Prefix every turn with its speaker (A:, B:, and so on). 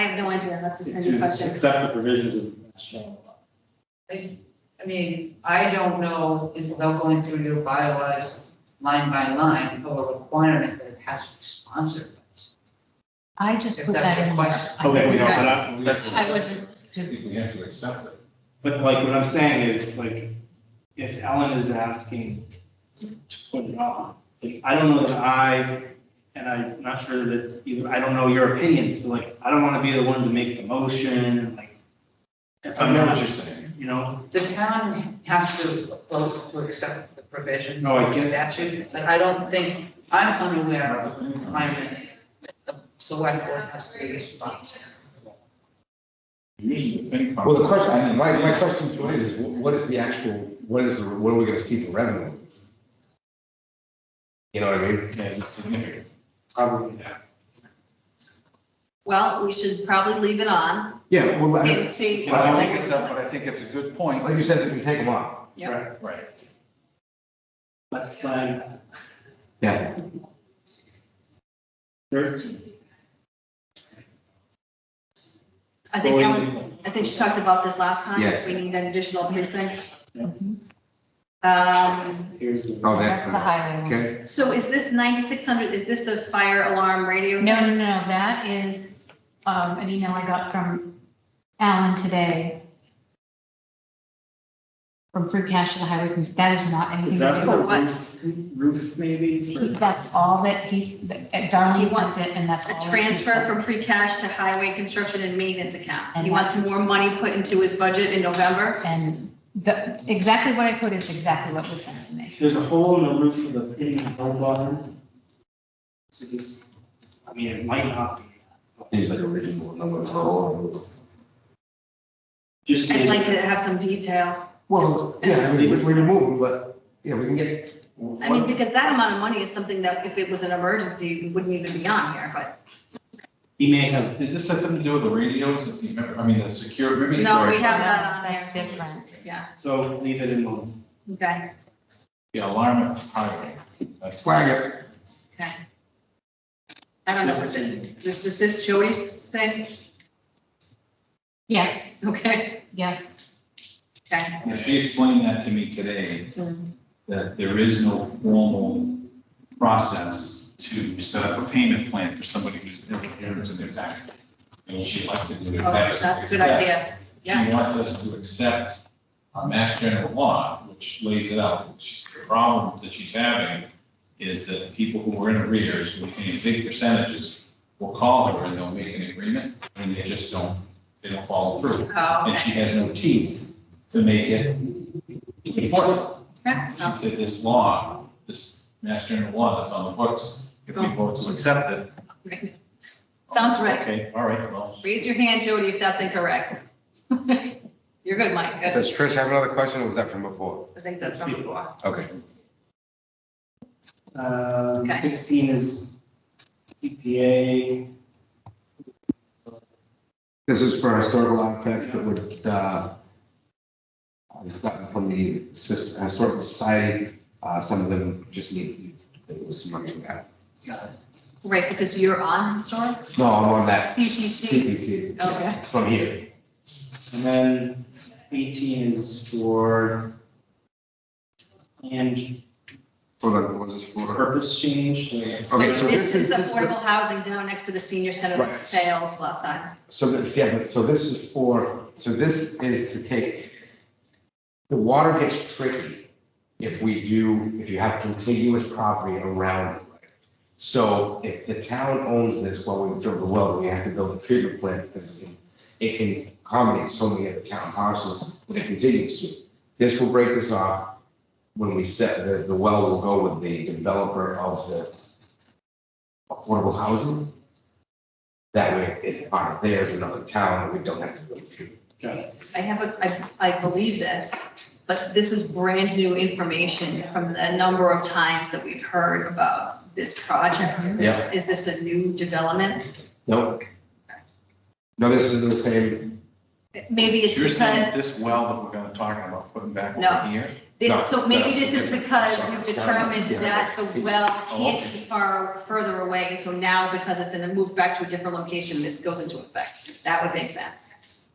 A: have no idea. That's a Cindy
B: It's-
A: question.
B: Except the provisions of mass general law.
C: I mean, I don't know, if- without going through your bylaws line by line, of a requirement that it has to be sponsored. by someone.
D: I just
C: If
D: put
C: that's
D: that
C: your
D: in
C: question.
D: there. I
B: Okay, we
D: think
B: don't,
D: that-
B: but I, that's-
D: I wasn't, just,
E: we have to accept it.
B: but like, what I'm saying is, like, if Ellen is asking to put it on, like, I don't know that I, and I'm not sure that either, I don't know your opinions, but like, I don't wanna be the one to make the motion, like. If
E: I
B: I'm
E: know what
B: not,
E: you're saying.
B: you know,
C: The town has to vote to accept the provisions
B: No, I
C: of the
B: get-
C: statute, but I don't think, I'm unaware
E: Not
C: of
E: the thing.
C: requirement that the select board has to be responsible.
E: Usually the thing.
F: Well, the question, I mean, my, my question to it is, wh- what is the actual, what is, the what are we gonna see for revenue? You know what I mean?
E: Yeah, is it significant?
B: probably that.
A: Well, we should probably leave it on
F: Yeah, well, I mean,
A: and see.
E: Well, I don't think it's up, but I think it's a good point.
F: like you said, we can take them off.
A: Yeah.
B: Right,
E: Right.
B: let's flag
F: Yeah.
B: thirteen.
A: I think Ellen,
B: Going-
A: I think she talked about this last time.
F: Yes.
A: We need an additional precinct.
B: Yeah.
D: Mm-hmm.
A: Um,
B: Here's the.
F: Oh, that's,
D: that's the
F: the-
D: highway one.
F: okay,
A: So is this 9600, is this the fire alarm radio?
D: No,
A: thing?
D: no, no, no, that is, um, an email I got from Alan today. From free cash to the highway, committee. that is not anything.
B: Is
D: to
B: that
D: do
B: for
A: For what?
B: roof, roof maybe?
D: He-
B: for-
D: That's all that he's,
A: He
D: Darlene
A: wants
D: sent it and that's all.
A: A
D: that he
A: transfer
D: sent.
A: from free cash to highway construction and maintenance account.
D: And
A: He wants more money put into his budget in November.
D: And the, exactly what I put is exactly what was sent to me.
B: There's a hole in the roof of the pit in hell barn. So this, I mean, it might not be,
F: seems like a reasonable number to roll.
B: just.
A: I'd like to have some detail.
F: Well, yeah, I mean, we we can move, but, yeah, we can get.
A: I mean, because that amount of money is something that if it was an emergency, it wouldn't even be on here, but
B: He may have,
E: Is this something to do with the radios? If you remember, I mean, the secure, maybe. the-
A: no, we have that on
D: That's
A: here.
D: different.
A: Yeah,
B: so leave it in one.
A: okay.
E: The alarm at the highway. That's-
F: Flag it,
A: I don't know what this, this, is this Jody's thing?
D: Yes,
A: Okay,
D: yes.
A: okay.
E: Yeah, She explained that to me today, that there is no formal process to set up a payment plan for somebody who's interference in their tax. And she'd like to do it.
A: Oh, That's a good idea.
E: She
A: Yes.
E: wants us to accept our mass general law, which lays it out. She's, the problem that she's having is that people who are in arrears, who are paying big percentages, will call her and they'll make an agreement, and they just don't, they don't follow through.
A: Oh,
E: And
A: okay.
E: she has no teeth to make it enforceable.
A: Yeah,
E: She
A: so-
E: said this law, this mass general law that's on the books, if we vote to accept it.
A: Sounds right.
E: Okay, all right, well,
A: Raise your hand, Jody, if that's incorrect. You're good, Mike. Good.
F: does Trish have another question, or was that from before?
A: I think that's from before.
F: Okay.
B: Um,
A: Okay.
B: sixteen is E EPA,
F: This is for historical artifacts that would, uh, I've gotten from the Sis- Historical Society, uh, some of them just need, it was some money for that.
A: Right, because you're on historic?
F: No, I'm on that
A: CPC.
F: CPC
A: Okay.
F: from here.
B: and then eighteen is for and
F: For the, what is this for?
B: purpose change, like,
F: Okay, so
A: This is
F: this is the-
A: affordable housing down next to the senior center that
F: Right.
A: failed last time.
F: So this, yeah, but so this is for, so this is to take, the water gets tricky if we do, if you have contiguous property around. it. So if the town owns this while we drill the well, we have to build a treatment plant because it can- it can accommodate so many of the town parcels that it continues to. This will break this off when we set, the, the well will go with the developer of the affordable housing. That way, it's part of theirs, another town, and we don't have to go through.
A: I have a, I, I believe this, but this is brand new information from the number of times that we've heard about this project. Is this, is this a new development?
F: Nope. No, this is the same,
A: Maybe it's
E: you're
A: because,
E: saying this well that we're gonna talk about putting back
A: No.
E: over here?
A: It-
F: No,
A: So maybe
F: that's
A: this is
F: different.
A: because
F: Sorry.
A: we've determined
F: Yeah,
A: that
F: that's-
A: the well
E: Oh,
A: can't be far, further away. And so now because it's in the move back to a different location, this goes into effect. That would make sense.